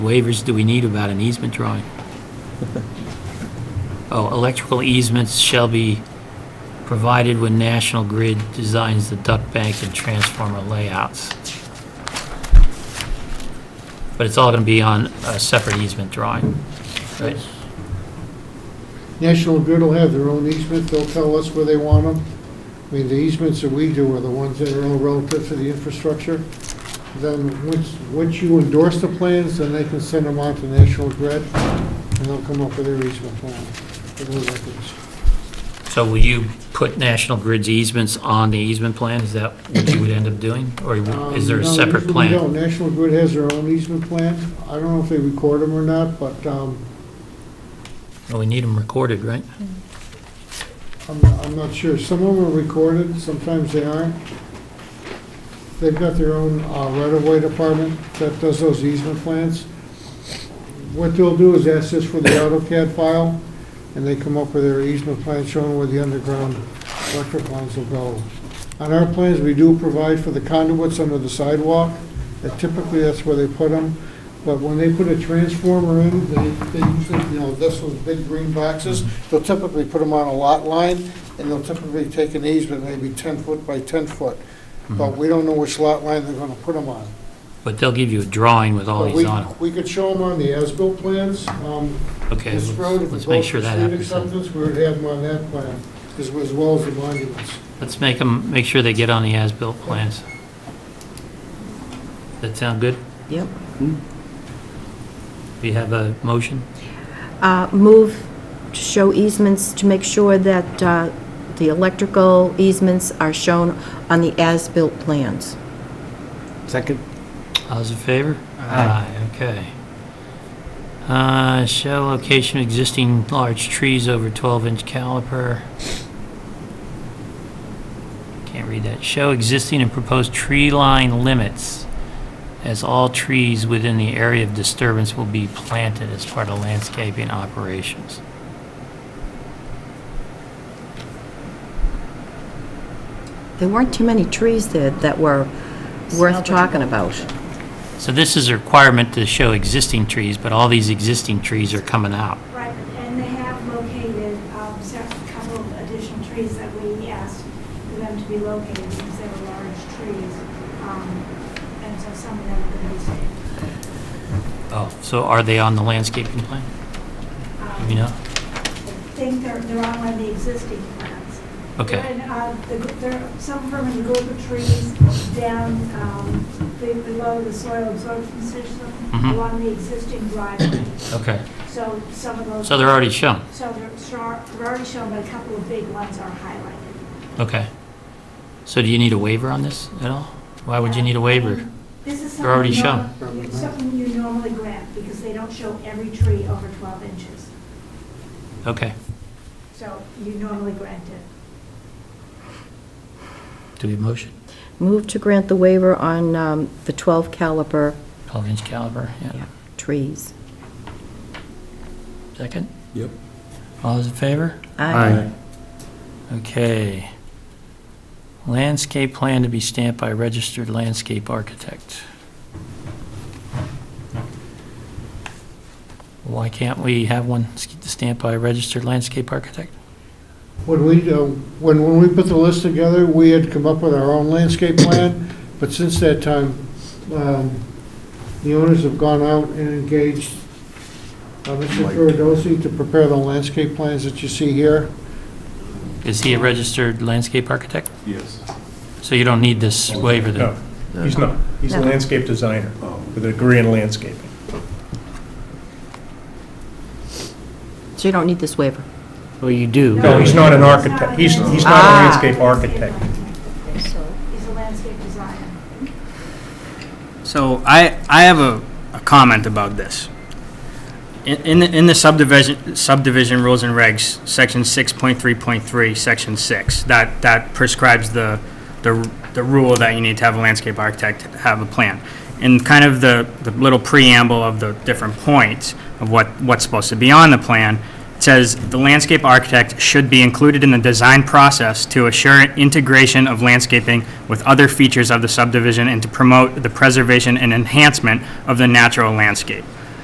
waivers do we need about an easement drawing? Oh, electrical easements shall be provided when National Grid designs the duct bank and transformer layouts. But it's all going to be on a separate easement drawing, right? National Grid will have their own easement, they'll tell us where they want them. I mean, the easements that we do are the ones that are all relative to the infrastructure. Then, once, once you endorse the plans, then they can send them on to National Grid, and they'll come up with their easement plan for those records. So will you put National Grid's easements on the easement plan? Is that what you would end up doing? Or Um, is there a no, separate usually plan? we don't. National Grid has their own easement plan. I don't know if they record them or not, but um, Well, we need them recorded, right? I'm, I'm not sure. Some of them are recorded, sometimes they aren't. They've got their own uh, right-of-way department that does those easement plans. What they'll do is ask us for the AutoCAD file, and they come up with their easement plan showing where the underground electric lines will go. On our plans, we do provide for the conduits under the sidewalk, and typically that's where they put them. But when they put a transformer in, they, they usually, you know, this was big green boxes, they'll typically put them on a lot line, and they'll typically take an easement, maybe ten foot by ten foot. Mm-hmm. But we don't know which lot line they're gonna put them on. But they'll give you a drawing with all But these we, Oh, on it. we could show them on the as-built plans, um, Okay, this road, let's if it let's make goes sure for that street happens. then. acceptance, we would have them on that plan, as, as well as the monuments. Let's make them, make sure they get on the as-built plans. That sound good? Yep. We have a motion? Uh, Move to show easements to make sure that uh, the electrical easements are shown on the as-built plans. Second? All's in favor? Aye. Okay. Uh, Show location of existing large trees over 12-inch caliper. Can't read that. Show existing and proposed tree line limits, as all trees within the area of disturbance will be planted as part of landscaping operations. There weren't too many trees there that were worth talking about. So this is a requirement to show existing trees, but all these existing trees are coming out. Right, and they have located um, se- a couple of additional trees that we asked for them to be located because they were large trees. um, And so some of them are going to be saved. Oh, so are they on the landscaping plan? Um, You know? I think they're, they're on one of the existing plants. Okay. And uh, the gr- there are some permanent group of trees down um, be- below the soil absorption system Mhm. along the existing driveway. Okay. So some of those. So they're already shown? So they're, shar- they're already shown, but a couple of big ones are highlighted. Okay. So do you need a waiver on this at all? Why would you need a waiver? Um, This is something. They're already you shown. norm- it's Something you normally grant, because they don't show every tree over 12 inches. Okay. So you normally grant it. Do we have a motion? Move to grant the waiver on um, the 12 caliber 12-inch caliber, yeah. trees. Second? Yep. All those in favor? Aye. Okay. Landscape plan to be stamped by registered landscape architect. Why can't we have one stamped by a registered landscape architect? When we, uh, when, when we put the list together, we had come up with our own landscape plan, but since that time, um, the owners have gone out and engaged uh, Mr. Mike. Furidosi to prepare the landscape plans that you see here. Is he a registered landscape architect? Yes. So you don't need this waiver No, then? he's not. He's a No. landscape designer with a degree in landscaping. So you don't need this waiver. Well, Oh, you do. No, he's not an No, architect. He's, he's not Ah. a landscape architect. He's a landscape designer. So I, I have a, a comment about this. In, in the- in the subdivision, subdivision rules and regs, section six point three point three, section six, that, that prescribes the, the, the rule that you need to have a landscape architect have a plan. And kind of the, the little preamble of the different points of what, what's supposed to be on the plan, it says, "The landscape architect should be included in the design process to assure integration of landscaping with other features of the subdivision and to promote the preservation and enhancement of the natural landscape."